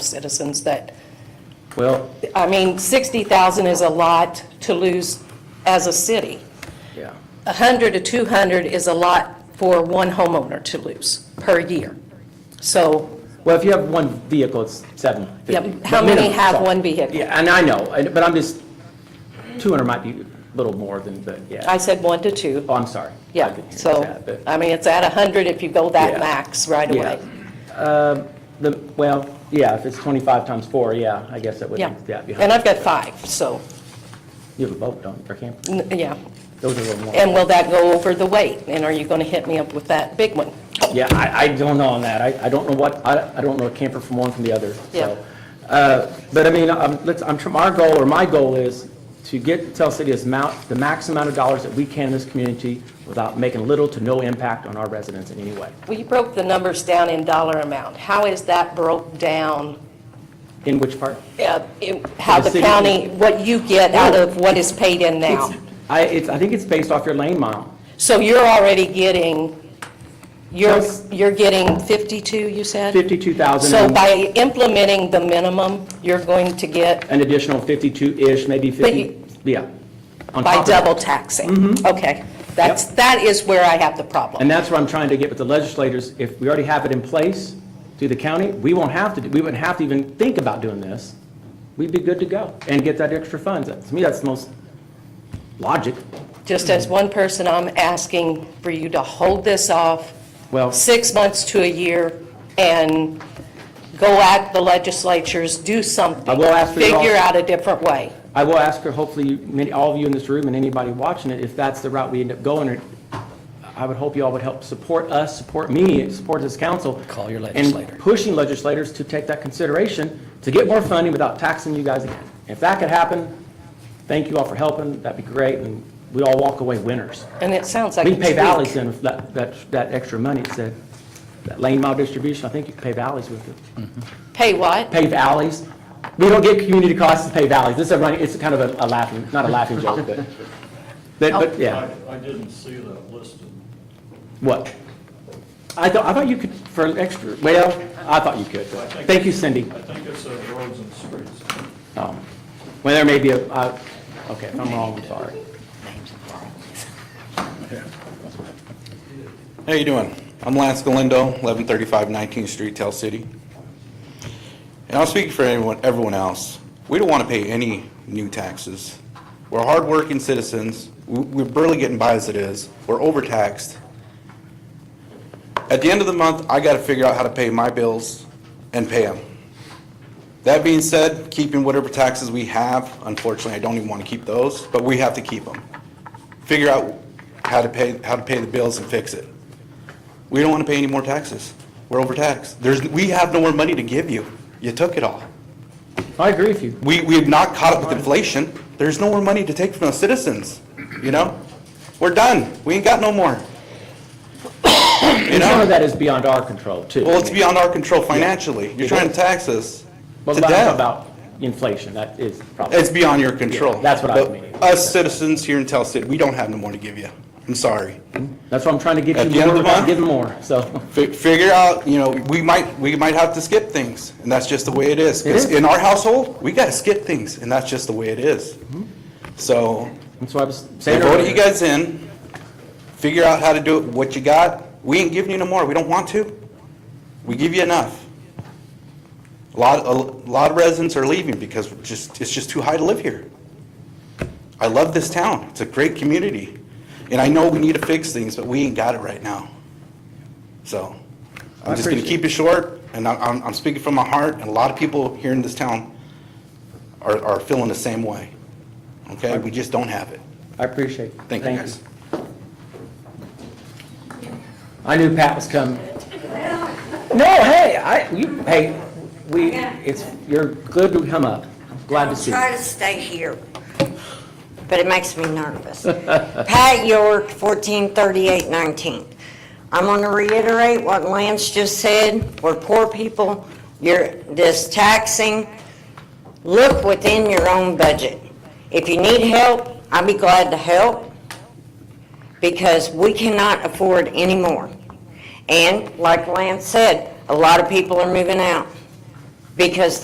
citizens that, Well, I mean, 60,000 is a lot to lose as a city. yeah. 100 to 200 is a lot for one homeowner to lose per year. So, Well, if you have one vehicle, it's seven. yeah, how many have one vehicle? Yeah, and I know, and- but I'm just, 200 might be a little more than, but yeah. I said one to two. Oh, I'm sorry. I Yeah, didn't hear so, uh, that, but- I mean, it's at 100 if you go Yeah. that max right Yeah. away. The, well, yeah, if it's 25 times four, yeah, I guess that would, Yeah. yeah. it'd be And 100. I've got five, so, You have a boat, don't you, or camper? n- yeah. Those are a little more. And will that go over the weight? And are you going to hit me up with that big one? Yeah, I, I don't know on that. I, I don't know what, I, I don't know a camper from one from the other, Yeah. so. Uh, But I mean, I'm, let's, I'm, tr- our goal, or my goal is to get Tell City as mount, the max amount of dollars that we can in this community without making little to no impact on our residents in any way. Well, you broke the numbers down in dollar amount. How is that broke down? In which part? uh, in- How The the city- county, what you get out of what is paid in now? I, it's, I think it's based off your lane mile. So you're already getting, you're, Yes. you're getting 52, you said? 52,000. So and by implementing the minimum, you're going to get An additional 52-ish, maybe 50, you- yeah. on top by of that. double taxing? Okay, that's, that is where I have the problem. Mm-hmm. And that's what I'm trying to get with the legislators. If we already have it in place through the county, we won't have to, do- we wouldn't have to even think about doing this. We'd be good to go and get that extra funds. To me, that's the most logic. Just as one person, I'm asking for you to hold this off Well- six months to a year and go at the legislatures, do something. I will ask for your- Figure out a different way. I will ask her, hopefully, many, all of you in this room and anybody watching it, if that's the route we end up going, or I would hope you all would help support us, support me, support this council. Call your And legislator. pushing legislators to take that consideration, to get more funding without taxing you guys again. If that could happen, thank you all for helping, that'd be great, and we all walk away winners. And it sounds like We can pay Valley it's weak. Center with that, that, that extra money, it's that, that lane mile distribution, I think you can pay valleys with it Pay what? pave alleys. We don't get community costs to pave alleys. This is a running, it's kind of a a laughing, not a laughing joke, but, but, but, yeah, I, I didn't see that listed. what? I thought, I thought you could, for an extra, well, I thought you could. Thank you, Cindy. I think it said roads and streets. Um, Well, there may be a, I- okay, if I'm wrong, I'm sorry. How you doing? I'm Lance Galindo, 1135 19th Street, Tell City. And I'll speak for everyone, everyone else. We don't want to pay any new taxes. We're hardworking citizens. We- We're barely getting by as it is. We're overtaxed. At the end of the month, I got to figure out how to pay my bills and pay them. That being said, keeping whatever taxes we have, unfortunately, I don't even want to keep those, but we have to keep them. Figure out how to pay, how to pay the bills and fix it. We don't want to pay any more taxes. We're overtaxed. There's, we have no more money to give you. You took it all. I agree with you. We, we have not caught up with inflation. There's no more money to take from the citizens, you know? We're done. We ain't got no more. You And some of know? that is beyond our control, too. Well, it's beyond our control financially. You're trying to tax us But to I'm talking death. about inflation, that is probably. It's beyond your control. Yeah, that's what I But mean. Us citizens here in Tell City, we don't have no more to give you. I'm sorry. That's what I'm trying to get At the you end more, of the without month- giving more, so. Fi- Figure out, you know, we might, we might have to skip things, and that's just the way it is. It is. Because in our household, we gotta skip things, and that's just the way it is. Mm-hmm. So, That's what I was they saying voted you earlier. guys in, figure out how to do it, what you got. We ain't giving you no more, we don't want to. We give you enough. A lot, a lot of residents are leaving because we're just, it's just too high to live here. I love this town, it's a great community, and I know we need to fix things, but we ain't got it right now. So, I'm just gonna keep it short, and I- I'm, I'm speaking from my heart, and a lot of people here in this town are, are feeling the same way. Okay, we just don't have it. I appreciate it. Thank you, guys. I knew Pat was coming. No, hey, I, you, hey, we, it's, you're good to come up. Glad to see you. Try to stay here, but it makes me nervous. Pat York, 1438 19th. I'm going to reiterate what Lance just said. We're poor people. You're, this taxing, look within your own budget. If you need help, I'd be glad to help because we cannot afford any more. And like Lance said, a lot of people are moving out because